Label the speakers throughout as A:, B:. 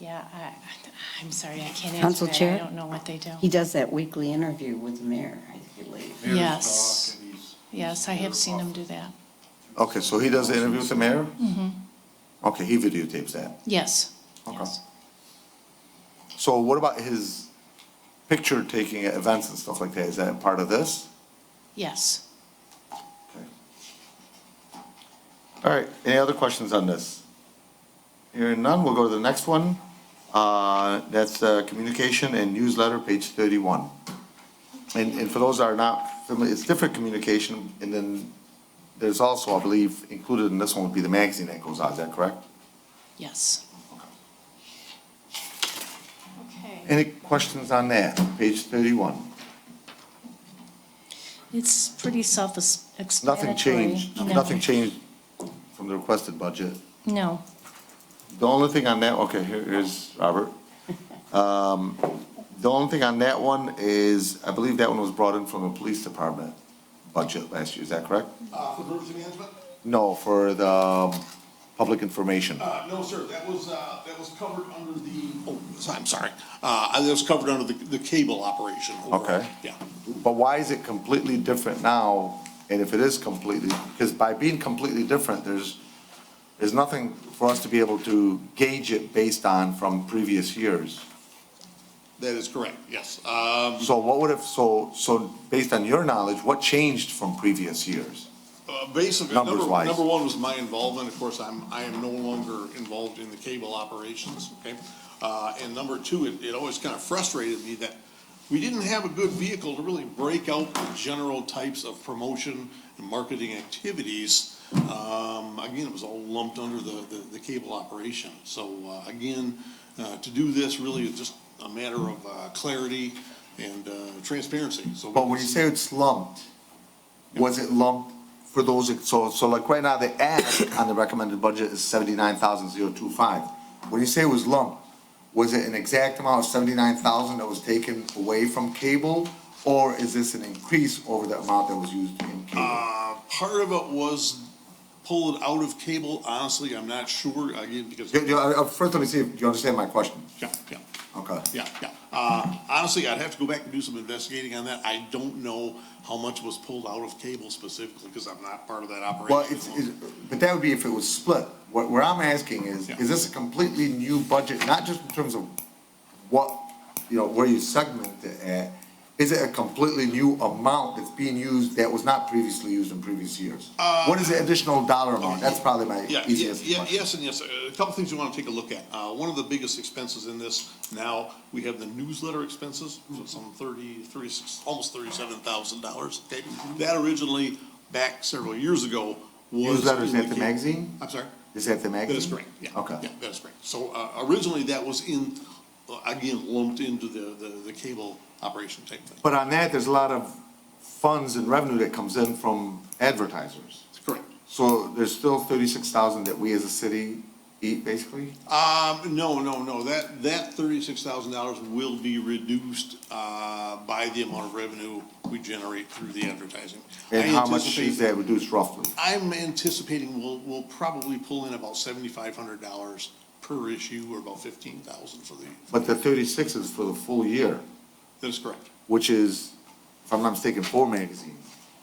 A: Yeah, I, I'm sorry, I can't answer
B: Council
A: that. I
B: Chair?
A: don't know what they do.
B: He does that weekly interview with the mayor, I believe.
C: Mayor's
A: Yes.
C: talk, and he's-
A: Yes, I have seen them do that.
D: Okay, so he does the interview with the mayor? Mm-hmm. Okay, he videotapes that.
A: Yes,
D: Okay.
A: yes.
D: So what about his picture taking at events and stuff like that? Is that part of this?
A: Yes.
D: Okay. All right, any other questions on this? Hearing none, we'll go to the next one. Uh, That's uh, communication and newsletter, page 31. And, and for those that are not familiar, it's different communication, and then there's also, I believe, included in this one would be the magazine that goes out, is that correct?
A: Yes. Okay.
D: Any questions on that, page 31?
A: It's pretty self-explanatory.
D: Nothing changed,
A: No.
D: nothing changed from the requested budget.
A: No.
D: The only thing on that, okay, here- here's Robert. Um, The only thing on that one is, I believe that one was brought in from the police department budget last year, is that correct?
C: Uh, for emergency management?
D: No, for the um, public information.
C: Uh, no, sir, that was, uh, that was covered under the, oh, I'm sorry. Uh, that was covered under the, the cable operation. overall.
D: Okay.
C: Yeah.
D: But why is it completely different now? And if it is completely, because by being completely different, there's, there's nothing for us to be able to gauge it based on from previous years.
C: That is correct, yes. Um,
D: So what would have, so, so based on your knowledge, what changed from previous years?
C: Uh, Basically, number,
D: Numbers-wise.
C: number one was my involvement, of course, I'm, I am no longer involved in the cable operations, okay? Uh, and number two, it, it always kind of frustrated me that we didn't have a good vehicle to really break out the general types of promotion and marketing activities. Um, again, it was all lumped under the, the, the cable operation, so, uh, again, uh, to do this really is just a matter of, uh, clarity and, uh, transparency, so.
D: But when you say it's lumped, was it lumped for those, so, so like right now, the ask on the recommended budget is seventy-nine thousand zero two five. When you say it was lumped, was it an exact amount of seventy-nine thousand that was taken away from cable? Or is this an increase over the amount that was used in cable?
C: Uh, part of it was pulled out of cable, honestly, I'm not sure, again, because,
D: You- you- uh, First, let me see if you understand my question.
C: yeah, yeah,
D: Okay.
C: yeah, yeah. Uh, honestly, I'd have to go back and do some investigating on that, I don't know how much was pulled out of cable specifically, because I'm not part of that operation.
D: Well, it's, it's, but that would be if it was split. What, where I'm asking is,
C: Yeah.
D: is this a completely new budget, not just in terms of what, you know, where you segment it at? Is it a completely new amount that's being used that was not previously used in previous years? What is the additional dollar amount? That's probably my
C: Uh, Yeah, yeah,
D: easiest
C: yeah,
D: question.
C: yes and yes. A couple things you want to take a look at. Uh, one of the biggest expenses in this now, we have the newsletter expenses, so some thirty, thirty-six, almost thirty-seven thousand dollars. Okay,
D: Mm-hmm.
C: that originally, back several years ago, was.
D: Newsletters
C: in
D: at the magazine?
C: I'm sorry?
D: Is that the
C: That
D: magazine?
C: is correct, yeah.
D: Okay.
C: Yeah, that is correct. So, uh, originally that was in, uh, again, lumped into the, the, the cable operation type thing.
D: But on that, there's a lot of funds and revenue that comes in from advertisers.
C: That's correct.
D: So there's still thirty-six thousand that we as a city eat, basically?
C: Um, no, no, no, that, that thirty-six thousand dollars will be reduced, uh, by the amount of revenue we generate through the advertising.
D: And
C: I
D: how much
C: anticipate-
D: is that reduced roughly?
C: I'm anticipating we'll, we'll probably pull in about seventy-five hundred dollars per issue, or about fifteen thousand for the,
D: But the thirty-six is for the full year,
C: that is correct.
D: which is, if I'm not mistaken, four magazines.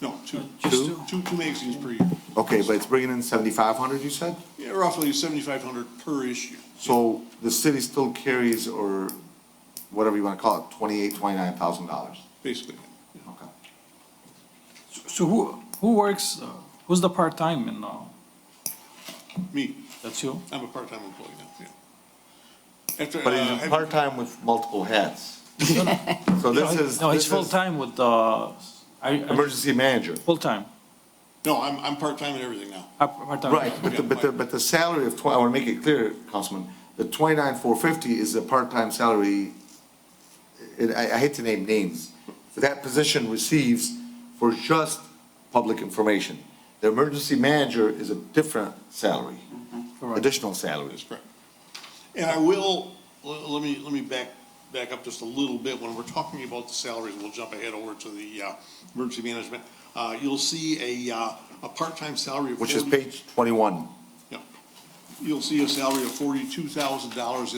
C: No, two,
D: Just
C: two, two two magazines per year,
D: Okay, but it's bringing in seventy-five hundred, you said?
C: Yeah, roughly seventy-five hundred per issue.
D: So the city still carries, or whatever you wanna call it, twenty-eight, twenty-nine thousand dollars.
C: Basically,
D: Okay.
E: So who, who works, uh, who's the part-time in, uh,
C: me,
E: that's you?
C: I'm a part-time employee now, yeah. After,
D: But
C: uh,
D: he's
C: have-
D: part-time with multiple hats. So this is,
E: No, he's
D: this is
E: full-time with, uh, I,
D: emergency manager.
E: full-time,
C: no, I'm, I'm part-time in everything now.
E: Uh, part-time.
D: Right, but the, but the, but the salary of twenty, I wanna make it clear, Councilman, the twenty-nine, four fifty is a part-time salary. And I, I hate to name names, but that position receives for just public information. The emergency manager is a different salary, additional salary.
C: That's correct. And I will, le- let me, let me back, back up just a little bit. When we're talking about the salaries, we'll jump ahead over to the uh, emergency management. Uh, You'll see a, uh, a part-time salary of
D: Which is
C: 40
D: page twenty-one.
C: yeah. You'll see a salary of forty-two thousand dollars